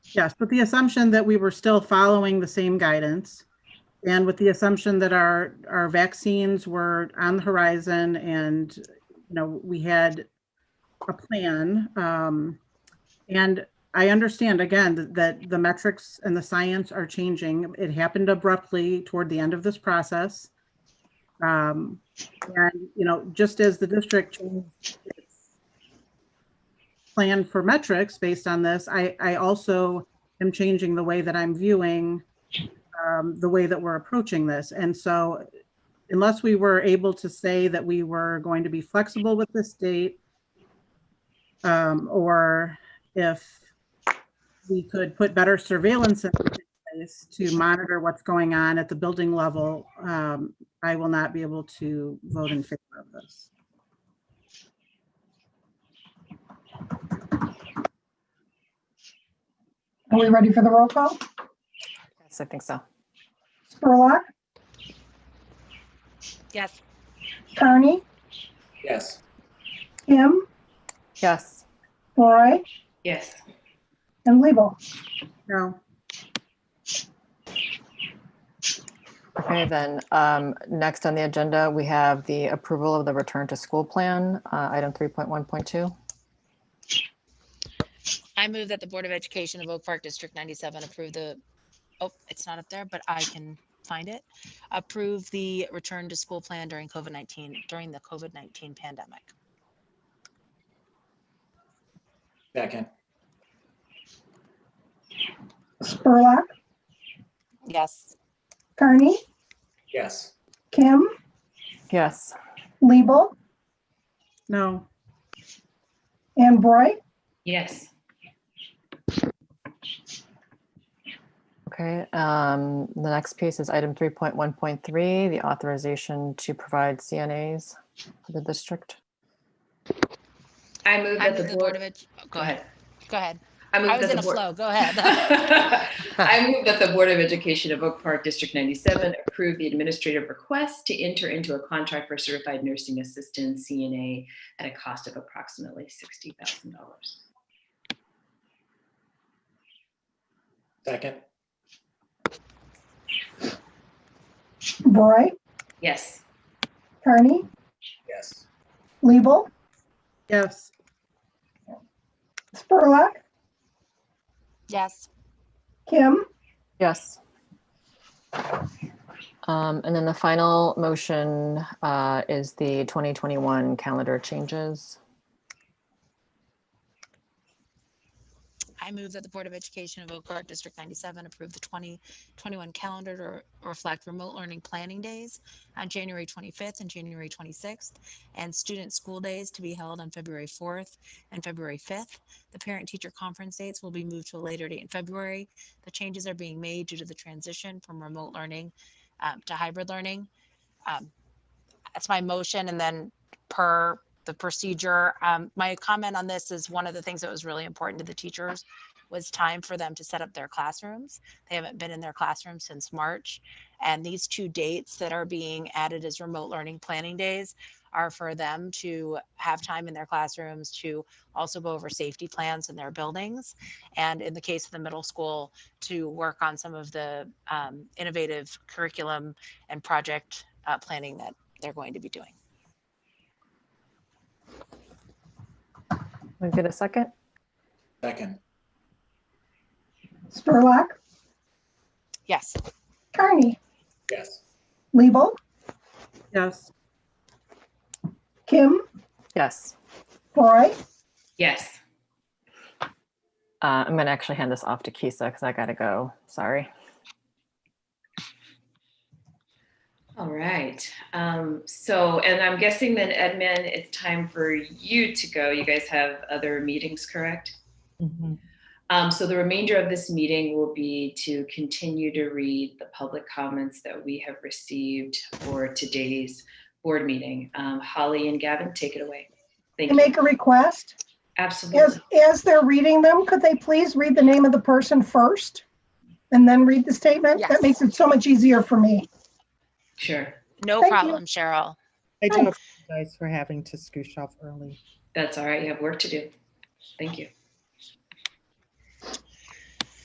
Yes, with the assumption that we were still following the same guidance and with the assumption that our, our vaccines were on the horizon and, you know, we had a plan. Um, And I understand again that- that the metrics and the science are changing. It happened abruptly toward the end of this process. Um, And, you know, just as the district changed its plan for metrics based on this, I, I also am changing the way that I'm viewing um, the way that we're approaching this. And so unless we were able to say that we were going to be flexible with this date, um, or if we could put better surveillance in place to monitor what's going on at the building level, um, I will not be able to vote in favor of this. Are we ready for the roll call? Yes, I think so. Spurlock, Yes. Carney, Yes. Kim, Yes. Roy, Yes. and Lebel. No, Okay, then, um, next on the agenda, we have the approval of the return to school plan, uh, item 3.1.2. I move that the Board of Education of Oak Park District 97 approve the, oh, it's not up there, but I can find it. Approve the return to school plan during COVID-19, during the COVID-19 pandemic. Second. Spurlock, Yes. Carney, Yes. Kim, Yes. Lebel, no, and Roy. Yes. Okay, um, the next piece is item 3.1.3, the authorization to provide CNAs for the district. I move I move that the the Board of board, Ed, go go ahead, ahead. go ahead. move I was that in the a board- flow, go ahead. I move that the Board of Education of Oak Park District 97 approve the administrative request to enter into a contract for certified nursing assistant CNA at a cost of approximately $60,000. Second. Roy, Yes, Carney, Yes. Lebel, yes. Spurlock, Yes. Kim, Yes. Um, and then the final motion, uh, is the 2021 calendar changes. I move that the Board of Education of Oak Park District 97 approve the 2021 calendar to re- reflect remote learning planning days on January 25th and January 26th, and student school days to be held on February 4th and February 5th. The parent-teacher conference dates will be moved to a later date in February. The changes are being made due to the transition from remote learning um, to hybrid learning. Um, That's my motion, and then per the procedure, um, my comment on this is one of the things that was really important to the teachers was time for them to set up their classrooms. They haven't been in their classrooms since March. And these two dates that are being added as remote learning planning days are for them to have time in their classrooms to also go over safety plans in their buildings. And in the case of the middle school, to work on some of the um, innovative curriculum and project uh, planning that they're going to be doing. Can we get a second? Second. Spurlock, Yes. Carney, Yes. Lebel, Yes, Kim, Yes. Roy, yes. Uh, I'm going to actually hand this off to Kisa because I got to go. Sorry. All right. Um, so, and I'm guessing then, Edmund, it's time for you to go. You guys have other meetings, correct? Um, so the remainder of this meeting will be to continue to read the public comments that we have received for today's board meeting. Um, Holly and Gavin, take it away. Thank and you. make a request. As, Absolutely. as they're reading them, could they please read the name of the person first? And then read the statement? Yes. That makes it so much easier for me. Sure. No Thank you. problem, Cheryl. I do Thanks. apologize for having to scooch off early. That's all right. You have work to do. Thank you.